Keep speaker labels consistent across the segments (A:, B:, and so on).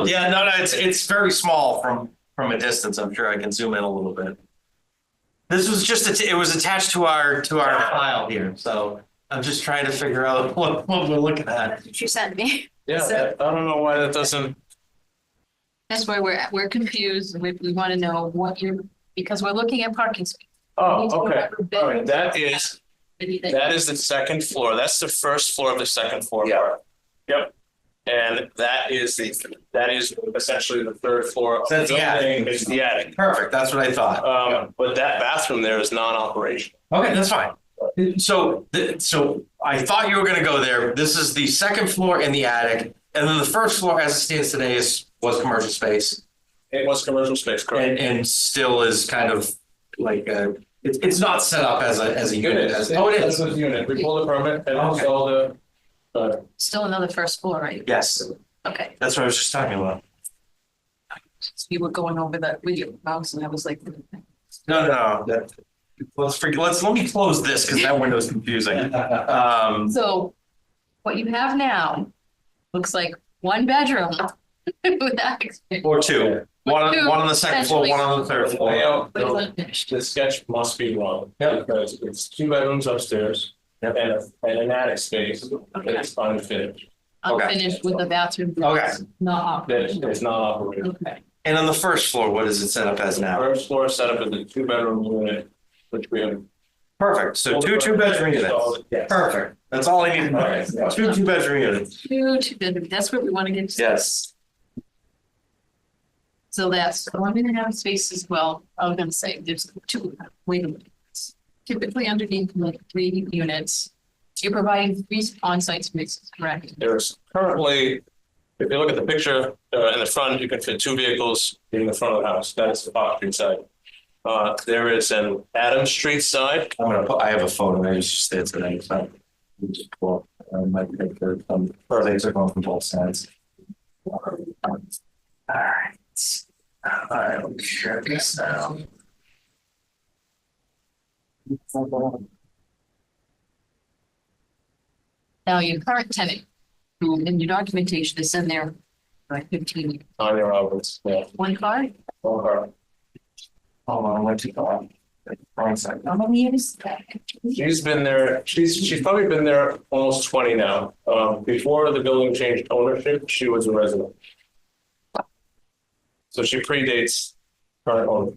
A: was.
B: Yeah, no, no, it's, it's very small from, from a distance. I'm sure I can zoom in a little bit. This was just, att- it was attached to our, to our file here, so I'm just trying to figure out what, what we're looking at.
C: That's what you sent me.
A: Yeah,
C: So-
A: I don't know why that doesn't,
C: That's why we're, we're confused. We, we want to know what you're, because we're looking at parking space. We need to
A: oh, okay.
C: remember
A: All right,
C: bedrooms,
A: that is,
C: anything.
A: that is the second floor. That's the first floor of the second floor
D: Yeah.
A: part. Yep. And that is the, that is essentially the third floor of the
B: That's the attic.
A: building. It's the attic.
B: Perfect, that's what I thought.
A: Um, but that bathroom there is non-operational.
B: Okay, that's fine. So, th- so I thought you were gonna go there. This is the second floor in the attic. And then the first floor as it stands today is, was commercial space
A: It was commercial space, correct?
B: and, and still is kind of like, uh, it's, it's not set up as a, as a unit. as- Oh, it is.
A: a unit. We pulled the permit and
B: Okay.
A: all the. uh,
C: Still another first floor, right?
B: Yes,
C: Okay.
B: that's what I was just talking about.
C: So You were going over that with your mouse and I was like,
B: No, no, no, that, let's forget, let's, let me close this because that window's confusing.
A: uh,
B: Um,
C: so what you have now looks like one bedroom. with access,
B: or two, one, on-
C: Two,
B: one on the second floor, one on the third
A: The
B: floor.
A: layout,
C: but it's
A: the-
C: unfinished.
A: the sketch must be wrong.
B: Yeah.
A: Because it's two bedrooms upstairs
B: Yep.
A: and a- and an attic space that's unfinished,
B: Okay.
C: Unfinished with the bathroom.
B: Okay.
C: Not.
A: that is is not operational.
C: Okay.
B: And on the first floor, what is it set up as now?
A: First floor setup is a two bedroom unit, which we have.
B: Perfect, so two, two bedroom units.
A: Yes.
B: Perfect, that's all I need to know. Two, two bedroom units.
C: Two, two bedroom, that's what we want to get to.
B: Yes.
C: So that's one and a half spaces, well, I was gonna say, there's two, wait a minute. Typically underneath like three units, you're providing three on-site spaces, correct?
A: There's currently, if you look at the picture, uh, in the front, you can fit two vehicles in the front of the house. That is the Fox Street side. Uh, there is an Adams Street side.
B: I'm gonna, put- I have a photo, I was just there today, so. we just pull up, uh, My picture, um, things are going from both sides. Alright. I'll share this now.
C: Now, your current tenant, who in your documentation is in there, like fifteen,
A: Tanya Roberts, yeah.
C: one car,
A: Or her.
B: Hold on, let you go on. Wrong side.
C: how many years?
A: She's been there, she's, she's probably been there almost twenty now. Um, before the building changed ownership, she was a resident. So she predates current owner.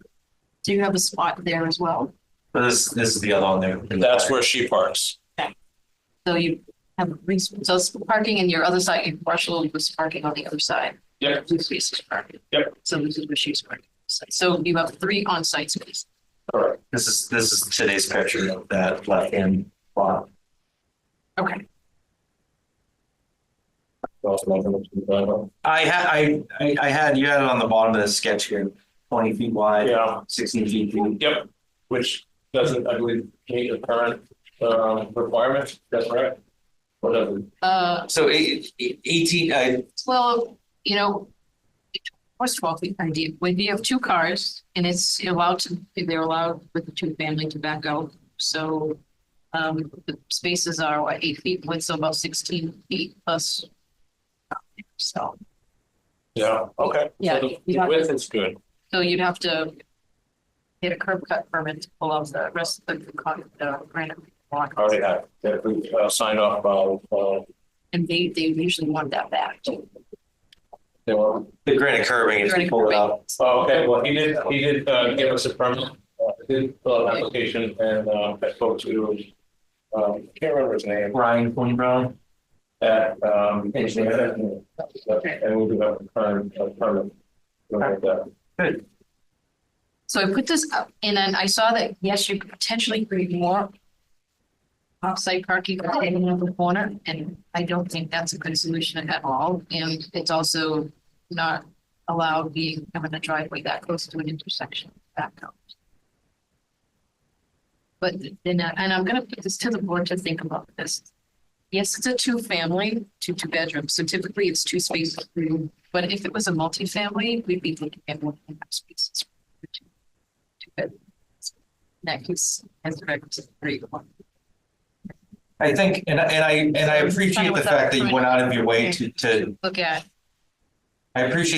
C: Do you have a spot there as well?
B: This, this is the other one there.
A: That's where she parks.
C: So you have, res- so it's parking in your other side, your partial was parking on the other side.
A: Yep.
C: Two spaces parking.
A: Yep.
C: So this is where she's parking. So you have three on-site spaces.
A: Correct.
B: This is, this is today's picture of that left-hand lot.
C: Okay.
A: Yeah,
B: I had, I, I I had, you had it on the bottom of the sketch here, twenty feet wide, sixteen feet deep.
A: yep, which doesn't, I believe, meet the current um requirement, that's right. Or doesn't,
C: Uh,
B: So eight- eight- eighteen, uh, I,
C: well, you know, what's twelve feet idea? When you have two cars and it's allowed to, they're allowed with the two family to back out, so. Um, the spaces are what, eight feet width, so about sixteen feet plus. So,
A: yeah, okay.
C: Yeah,
A: So
C: you
A: The
C: have-
A: width is good.
C: so you'd have to. Get a curb cut permit to pull out the rest of the con, the granite block.
A: Already have, that we uh, signed off by, uh,
C: And they, they usually want that back.
A: they were.
B: the granite curving is pulled out.
A: Oh, okay, well, he did, he did uh give us a permit, uh, did fill out an application and uh I spoke to um, can't remember his name,
B: Ryan Queen Brown.
A: that um. engineer. And we do have a current, a permit. Like that.
C: So I put this up and then I saw that, yes, you could potentially create more. Offsite parking in another corner and I don't think that's a good solution at all. And it's also not allowed being having a driveway that close to an intersection back out. But then, I- and I'm gonna put this to the board to think about this. Yes, it's a two family, two two bedrooms, so typically it's two spaces. per room. But if it was a multifamily, we'd be looking at one and a half spaces two bedrooms. That case has records three to one.
B: I think, and, I- and I, and I appreciate the fact that you went out of your way to, to,
C: Look at
B: I appreciate